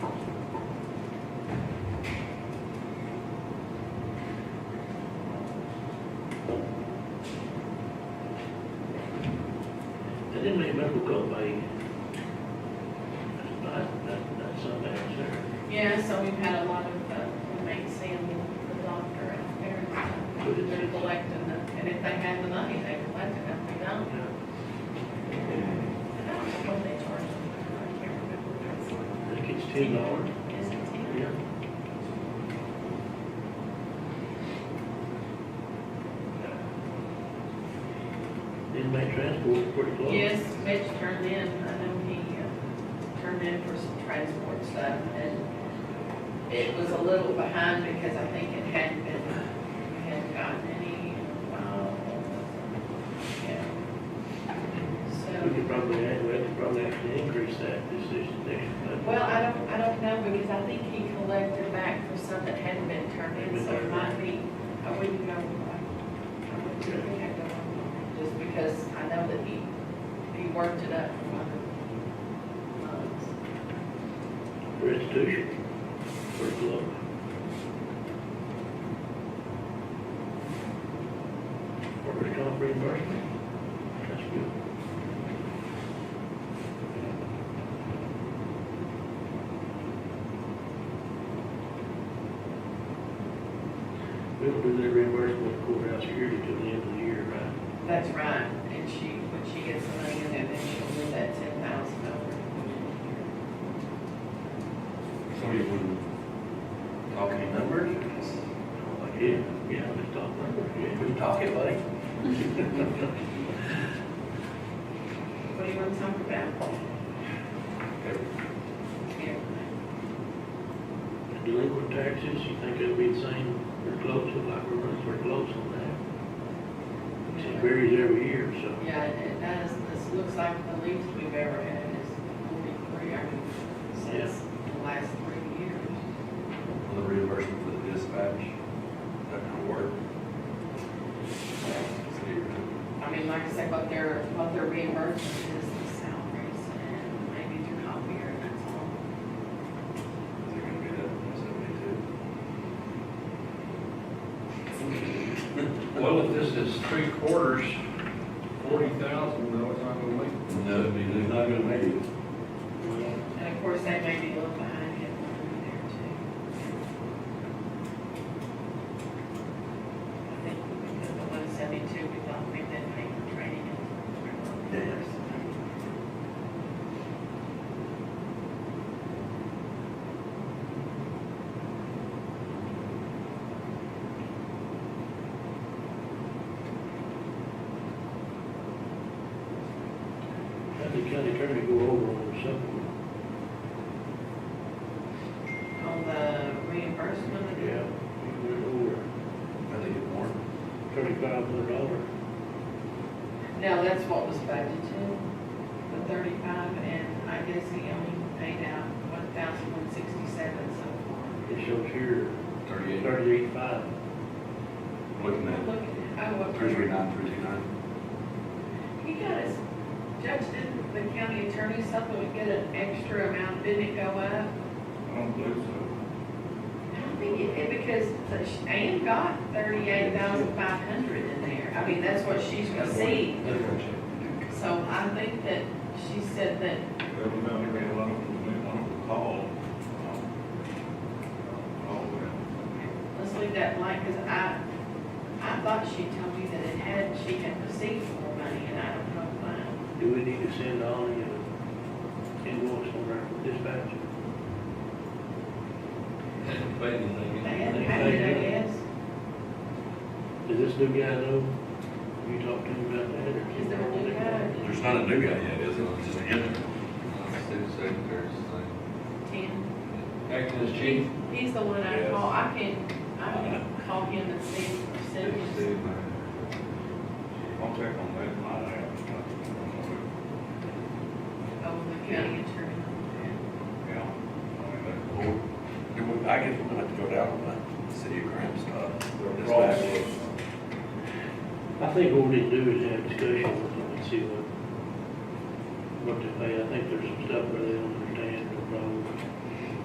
It may remember go by. That's not, that, that's not bad, sir. Yeah, so we've had a lot of, uh, inmates seeing the doctor out there and But stuff. it's- They're collecting, the- and if they had the money, they collect it, if they don't, Yeah, I don't know what they charge them, I can't remember. I think it's ten dollars. Is it ten? Yeah. Inmate transport, pretty close. Yes, Mitch turned in, I know he uh, turned in for some transport stuff, and it was a little behind because I think it hadn't been, hadn't gotten any, uh, yeah. We could So, probably, add- we could probably actually increase that this, this, next month. well, I don't, I don't know, because I think he collected back for some that hadn't been turned in, so it might be, I wouldn't know. uh, I wouldn't think I know, Just because I know that he, he worked it up um, from other months. Restitution, pretty close. Workers' comp reimbursement, that's good. We'll do the reimbursement of courthouse security till the end of the year, right? That's right, and she, when she gets the money in there, then she'll move that ten thousand over. So you wouldn't talk any numbers? Like, Yeah, Oh, yeah, let's talk numbers, yeah. We talk it like, What do you want to talk about? every- Yeah. Delinquent taxes, you think it'll be the same, we're close, it like we're running, we're close on that. It varies every year, so. Yeah, it it does, this looks like the least we've ever had is forty-three, I mean, since the last three years. on the reimbursement for the dispatch, that kind of work. So you're gonna- I mean, like I said, what they're, what they're reimbursing is the salaries and maybe your copier, and that's all. Is it gonna be that one seventy-two? Well, if this is three quarters, forty thousand, no, it's not gonna make it. No, it'd be- they're not gonna make it. And of course, they may be a little behind him over there too. I think because the one seventy-two, we thought we did pay for training and. Yes. Had the county attorney go over on something. On the reimbursement. Yeah. He went over How they get more? thirty-five hundred dollars. No, that's what was budgeted, the thirty-five, and I guess he only paid out one thousand one sixty-seven so far. It shows here Thirty-eight, thirty-eight five. looking at Look, oh, what. three three nine, three two nine. He got his, Judge, didn't the county attorney supplement get an extra amount, didn't it go up? I don't believe so. I don't think it did, because the sh- Ann got thirty-eight thousand five hundred in there, I mean, that's what she's received. That's what you- So I think that she said that, That was not very long, I don't recall. Um, All that. let's leave that blank, because I, I thought she told me that it had, she had received more money, and I don't know why. Do we need to send all the uh, invoice on our dispatch? They hadn't paid it, I guess, Does this new guy know? You talked to him about that or? is there a new guy? There's not a new guy yet, is there? It's Just him. Ten. Acting as He- He's the one I Yes. call, I can, I can call him and Uh-huh. see his percentage. uh, I'll check on that, my app. Oh, the county attorney. Yeah. I mean, that- Well, do we- Oh, I guess we're gonna have to go down on the city of Graham stuff. They're Dispatch. I think what we need to do is have a discussion with them and see what, what they pay. I think there's some stuff where they don't understand the problem.